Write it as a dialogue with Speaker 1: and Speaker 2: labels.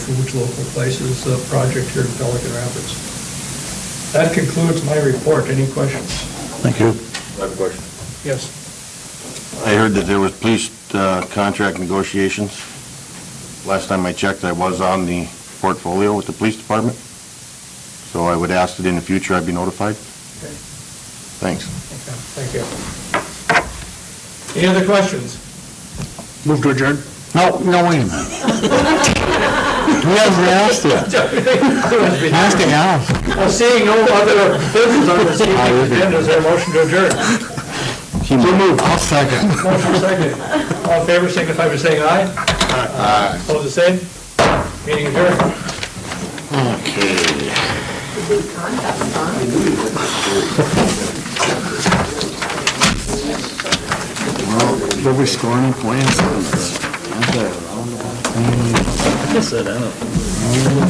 Speaker 1: Foods Local Places uh, project here in Pelican Rapids. That concludes my report. Any questions?
Speaker 2: Thank you.
Speaker 3: I have a question.
Speaker 1: Yes.
Speaker 2: I heard that there was police uh, contract negotiations. Last time I checked, I was on the portfolio with the police department, so I would ask that in the future I be notified.
Speaker 1: Okay.
Speaker 2: Thanks.
Speaker 1: Okay, Thank you. Any other questions?
Speaker 4: Move to adjourn.
Speaker 2: No, no, wait a minute. We haven't asked yet. Ask it now.
Speaker 1: Well, Seeing no other business on this evening's agenda, is there a motion to adjourn?
Speaker 2: So moved. I'll second.
Speaker 1: Motion second. All in favor, signify by saying aye. Aye. Opposed, the same? Meeting adjourned.
Speaker 2: Okay. Did we score any points? I said, I don't know.